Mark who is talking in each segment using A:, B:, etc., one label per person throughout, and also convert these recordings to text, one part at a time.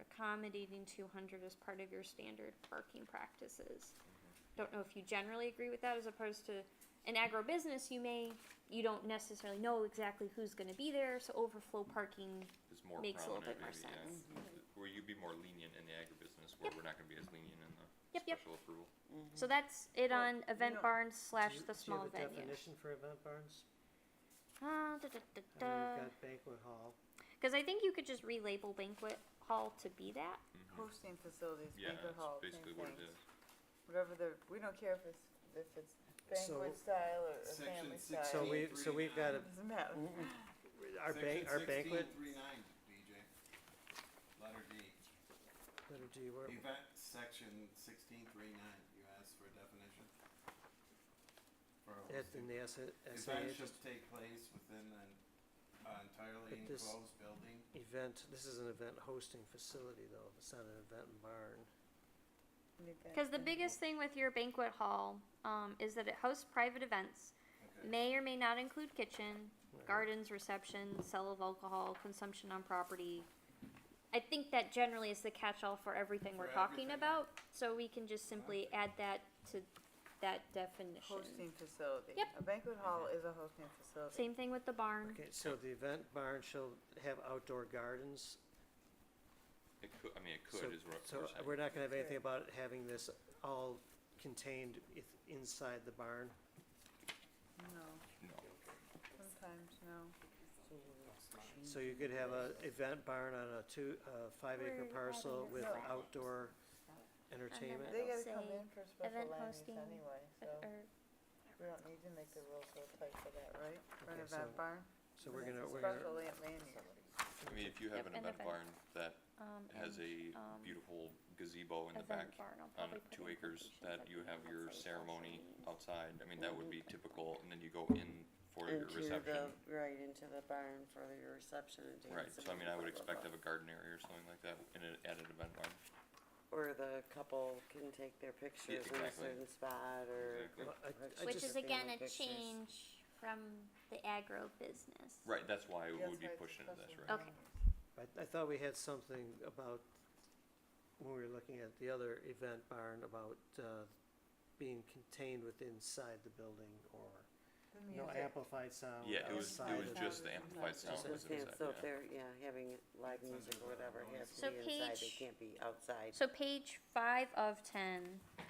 A: accommodating two hundred as part of your standard parking practices. Don't know if you generally agree with that as opposed to an agribusiness, you may, you don't necessarily know exactly who's gonna be there, so overflow parking,
B: It's more
A: Makes a little
B: prominent,
A: bit more
B: maybe, yeah.
A: sense.
B: Where you'd be more lenient in the agribusiness, where
A: Yep.
B: we're not gonna be as lenient in the
A: Yep, yep.
B: special approval.
A: so that's it
C: Oh,
A: on
C: you
A: event
C: know,
A: barns slash
C: Do you-
A: the small
C: Do you have a
A: venue.
C: definition for event barns?
A: Uh, da, da, da,
C: I mean,
A: da.
C: You've got banquet hall,
A: Cause I think you could just relabel banquet hall to be that,
B: Mhm.
D: hosting facilities,
B: Yeah,
D: banquet hall,
B: that's
D: same
B: basically what it
D: thing.
B: is.
D: Whatever the, we don't care if it's, if it's
C: So-
D: banquet style or or
E: Section
D: family
E: six-
D: style,
C: so we, so we've got a,
D: it doesn't matter.
C: our ban- our
E: Section
C: banquet,
E: sixteen three nine, DJ. Letter D.
C: letter G, where,
E: Event, section sixteen three nine, you asked for a definition? For a
C: at, in
E: hosting.
C: the S,
E: Event
C: SAA,
E: should take place within an uh, entirely
C: But this-
E: enclosed building.
C: event, this is an event hosting facility though, it's not an event barn.
D: An event
A: cause the
D: venue.
A: biggest thing with your banquet hall, um, is that it hosts private events.
E: Okay,
A: May or may not include kitchen,
C: Right.
A: gardens, reception, sale of alcohol, consumption on property. I think that generally is the catch-all for everything we're
E: For
A: talking
E: everything.
A: about, so we can just simply add that to that definition.
D: Hosting facility.
A: Yep.
D: A banquet hall
B: Mm-hmm.
D: is a hosting facility.
A: Same thing with the barn.
C: Okay, so the event barn shall have outdoor gardens,
B: It could, I mean, it
C: so,
B: could is what
C: so
B: we're
C: we're
B: saying.
C: not gonna have anything
D: Right.
C: about it having this all contained i- inside the barn.
D: No,
B: No,
D: sometimes no.
C: So you could have a event barn on a two, uh, five acre
A: We're
C: parcel
A: adding
C: with
D: this. No.
C: outdoor entertainment.
D: They
A: It'll
D: gotta come
A: say
D: in for special
A: event
D: land use
A: hosting,
D: anyway, so
A: uh,
D: we don't need to make the rules so tight for that, right? For an
C: Okay,
D: event
C: so-
D: barn?
C: So we're gonna,
D: It's a
C: we're gonna,
D: Special land land use.
B: I mean, if you
A: Yep,
B: have an
A: and
B: event
A: event.
B: barn that
A: um,
B: has
A: and
B: a
A: um,
B: beautiful gazebo in the
A: event
B: back
A: barn, I'll
B: on
A: probably put
B: two
A: in
B: acres,
A: quotations
B: that
A: at
B: you
A: the
B: have
A: end,
B: your
A: let's say, social
B: ceremony
A: means.
B: outside, I mean, that would be
F: Mhm.
B: typical, and then you go in for your
F: Into
B: reception.
F: the, right, into the barn for your reception and dancing.
B: Right, so I mean, I would expect to
F: a
B: have a garden area or something like that in an added event barn.
F: Or the couple can take their pictures in a
B: exactly.
F: certain spot or.
B: Exactly.
C: well, I, I
A: Which is
C: just,
F: just- Family
A: again a
F: pictures.
A: change from the agro business.
B: Right, that's why it
D: That's
B: would be
D: why it's a
B: pushed into this,
D: special
B: right?
A: Okay.
D: land use.
C: I, I thought we had something about, when we were looking at the other event barn, about, uh, being contained with inside the building or
D: The
C: no
D: music.
C: amplified sound
B: Yeah, it was,
C: outside
B: it was
C: of-
D: the-
B: just the amplified
F: I was
B: sound
C: Just
F: gonna
B: was
F: say,
B: inside,
F: so if
B: yeah.
F: they're, yeah, having live music or whatever, it has
A: So
F: to be inside,
A: page-
F: it can't be outside.
A: So page five of ten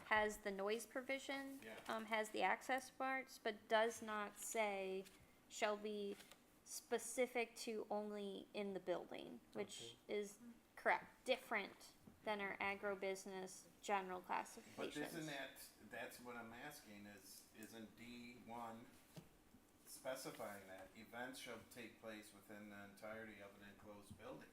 A: has the noise provision,
E: Yeah.
A: um, has the access parts, but does not say shall be specific to only in the building, which is correct, different than our agribusiness general
E: But
A: classifications.
E: isn't that, that's what I'm asking is, isn't D one specifying that events shall take place within the entirety of an enclosed building?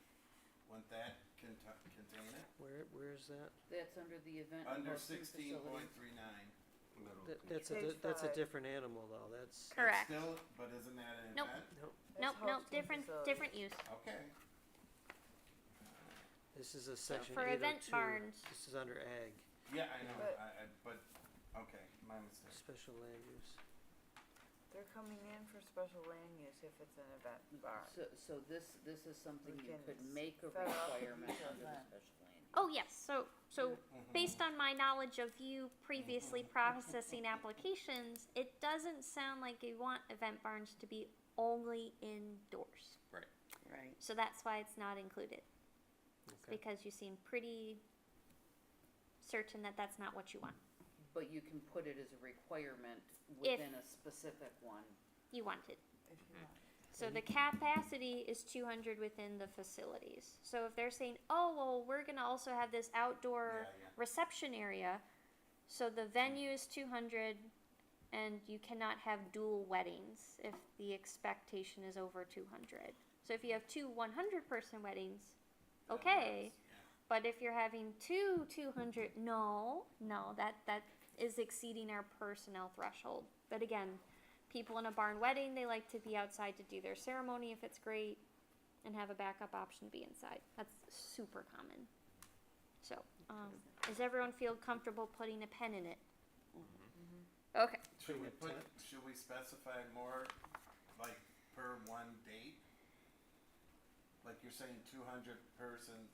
E: Wouldn't that conti- contain it?
C: Where, where is that?
G: That's under the event and
E: Under
G: hosting
E: sixteen
G: facility.
E: point three nine.
B: Oh,
C: That, that's a,
D: Page
C: di- that's a
D: five.
C: different animal though, that's,
A: Correct,
E: Still, but isn't that an
A: Nope.
E: event?
D: It's
A: nope, nope,
D: hosting
A: different,
D: facility.
A: different use.
E: Okay.
C: this is a section
A: for
C: eight oh
A: event
C: two,
A: barns-
C: this is under ag,
E: Yeah, I know,
D: But-
E: I, I, but, okay, my mistake.
C: special land use.
D: They're coming in for special land use if it's an event barn.
G: So, so this, this is something
D: We
G: you
D: can
G: could
D: s-
G: make a
D: set up
G: requirement
D: a
G: under the
D: plan.
G: special land.
A: Oh, yes, so, so
E: Mhm.
A: based on my knowledge of you previously processing applications, it doesn't sound like you want event barns to be only indoors.
F: Right,
A: So that's why it's not included. It's
C: Okay.
A: because you seem pretty certain that that's not what you want.
G: But you can put it as a requirement within a specific one.
A: You wanted.
D: If you want.
A: So the capacity is 200 within the facilities. So if they're saying, oh, well, we're going to also have this outdoor
E: Yeah, yeah.
A: reception area, so the venue is 200, and you cannot have dual weddings if the expectation is over 200. So if you have two 100 person weddings,
E: Yeah,
A: okay.
E: that's- yeah.
A: But if you're having two 200, no, no, that that is exceeding our personnel threshold. But again, people in a barn wedding, they like to be outside to do their ceremony if it's great, and have a backup option be inside. That's super common. So, um, does everyone feel comfortable putting a pen in it? Okay.
E: Should we
C: Bring a
E: put,
C: tent.
E: should we specify more, like, per one date? Like you're saying two hundred person